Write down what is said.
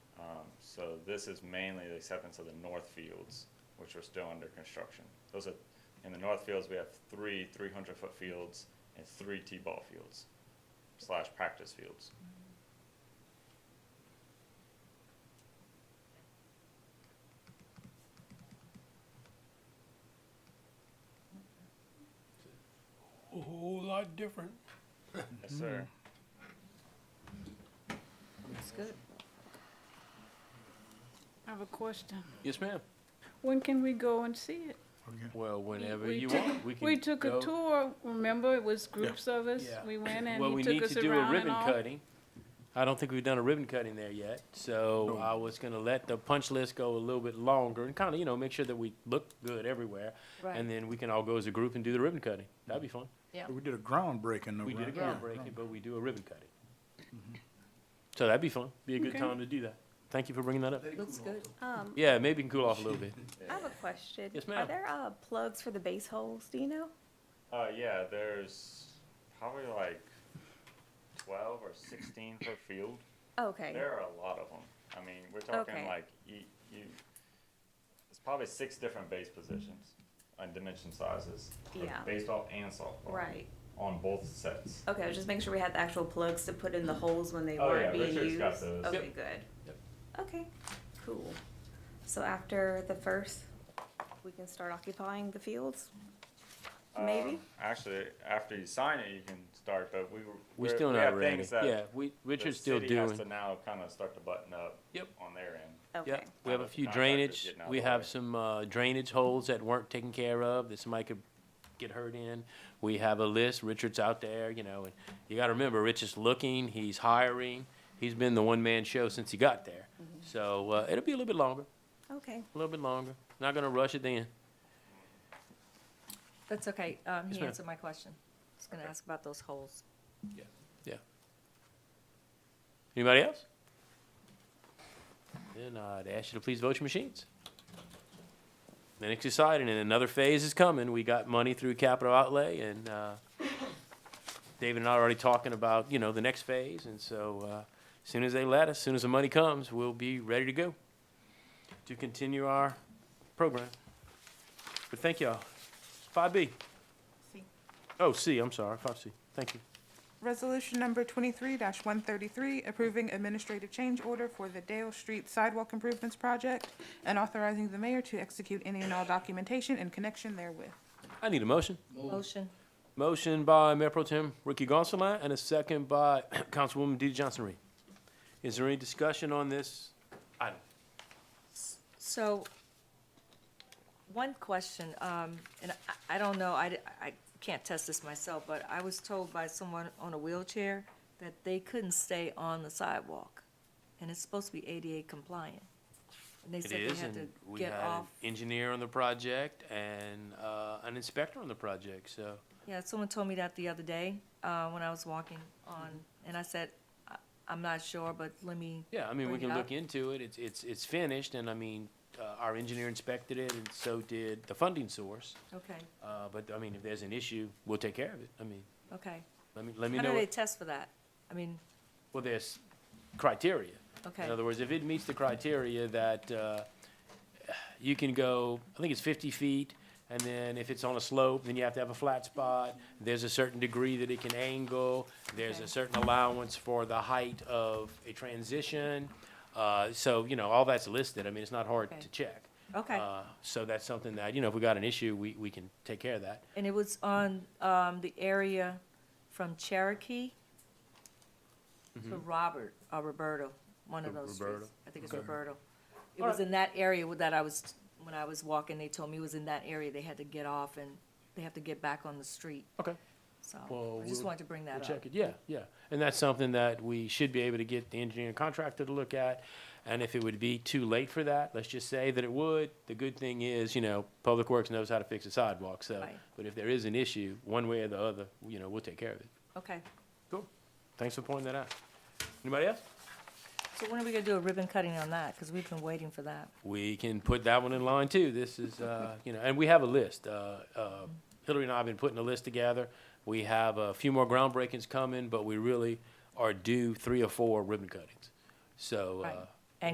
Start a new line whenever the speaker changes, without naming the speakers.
Um, So this is mainly the acceptance of the north fields, which are still under construction. Those are, in the north fields, we have three three hundred foot fields and three T-ball fields slash practice fields.
A whole lot different.
Mm-hmm.
Yes, sir.
That's good. I have a question.
Yes, ma'am.
When can we go and see it?
Well, whenever
We
you
took-
want, we can
We took
go.
a tour, remember? It was groups of us.
Yeah.
We went
Well,
and
we
he
need
took
to
us
do a
around and
ribbon
all.
cutting. I don't think we've done a ribbon cutting there yet, so I was gonna let the punch list go a little bit longer and kinda, you know, make sure that we look good everywhere. And then we can all go as a group and do the ribbon cutting. That'd be fun.
We did a groundbreaking though,
We did a
right?
groundbreaking, but we do a ribbon cutting.
Mm-hmm.
So that'd be fun. Be a good
Okay.
time to do that. Thank you for bringing that up.
Looks good.
Um,
Yeah, maybe we can cool off a little bit.
I have a question.
Yes,
Are
ma'am.
there, uh, plugs for the base holes, do you know?
Uh, yeah, there's probably like twelve or sixteen per field.
Okay,
There are a lot of them. I mean, we're talking
Okay.
like you, you. It's probably six different base positions and dimension sizes. for
Yeah.
Baseball and softball.
right.
On both sets.
Okay, I was just making sure we had the actual plugs to put in the holes when they
Oh, yeah,
weren't being
Richard's
used.
got those.
Okay,
Yep.
good.
Yep.
Okay, cool. So after the first, we can start occupying the fields? Maybe?
Um, Actually, after you sign it, you can start, but we were.
We're
we're-
still
we
not
have
ready.
things that
Yeah, we,
the
Richard's still
city has
doing.
to Now kind of start to button up.
Yep.
On their end.
Yeah,
Okay,
we have
Now
a
that the
few
contractor's
drainage,
getting out of
we
the way.
have some uh, drainage holes that weren't taken care of, that somebody could get hurt in. We have a list, Richard's out there, you know, and you gotta remember, Rich is looking, he's hiring, he's been the one-man show since he got there.
Mm-hmm.
So, uh, it'll be a little bit longer,
okay.
a little bit longer, not gonna rush it then.
That's okay,
Yes,
um, he
ma'am.
answered my question. I was gonna ask about those holes.
Anybody else? Then I'd ask you to please vote your machines. Then it's exciting, and another phase is coming. We got money through capital outlay, and uh, David and I are already talking about, you know, the next phase, and so uh, as soon as they let us, as soon as the money comes, we'll be ready to go to continue our program. But thank y'all. Five B.
C.
Oh, C, I'm sorry, five C. Thank you.
Resolution number twenty-three one thirty-three, approving administrative change order for the Dale Street Sidewalk Improvements Project and authorizing the mayor to execute any and all documentation in connection therewith.
I need a motion.
Motion.
Motion by Mayor Pro Tem Ricky Gonsalas and a second by Councilwoman DeeDee Johnson-Reed. Is there any discussion on this item?
So, one question, um, and I, I don't know, I, I can't test this myself, but I was told by someone on a wheelchair that they couldn't stay on the sidewalk, and it's supposed to be ADA compliant. And they
It
said they
is,
had to
and we
get
had an
off,
engineer on the project and uh, an inspector on the project, so.
yeah, someone told me that the other day, uh, when I was walking on, and I said, I, I'm not sure, but let me.
Yeah, I mean, we
bring it
can
up."
look into it, it's, it's, it's finished, and I mean, uh, our engineer inspected it, and so did the funding source.
Okay,
Uh, But, I mean, if there's an issue, we'll take care of it, I mean,
okay.
let me, let me
How
know,
do they
what-
test for that? I mean,
well, there's criteria.
okay.
In other words, if it meets the criteria that uh, you can go, I think it's 50 feet, and then if it's on a slope, then you have to have a flat spot. There's a certain degree that it can angle. There's a
Okay.
certain allowance for the height of a transition. Uh, So, you know, all that's listed. I mean, it's not hard
Okay.
to check.
Okay.
Uh, So that's something that, you know, if we got an issue, we, we can take care of that.
And it was on, um, the area from Cherokee to Robert, or Roberto, one of
To
those
Mm-hmm. Roberto?
streets. I think it's Roberto. It was in that area with- that I was, when I was walking, they told me it was in that area, they had to get off and they have to get back on the street,
Okay.
so.
Well,
I just
we'll-
wanted to bring
We'll
that up.
check it, yeah, yeah. And that's something that we should be able to get the engineering contractor to look at. And if it would be too late for that, let's just say that it would. The good thing is, you know, Public Works knows how to fix a sidewalk, so.
Right.
But if there is an issue, one way or the other, you know, we'll take care of it.
Okay,
Cool. Thanks for pointing that out. Anybody else?
so when are we gonna do a ribbon cutting on that? Because we've been waiting for that.
We can put that one in line too. This is, uh, you know, and we have a list. Uh, uh, Hillary and I have been putting a list together. We have a few more groundbreakings coming, but we really are due three or four ribbon cuttings. So, uh,
Right.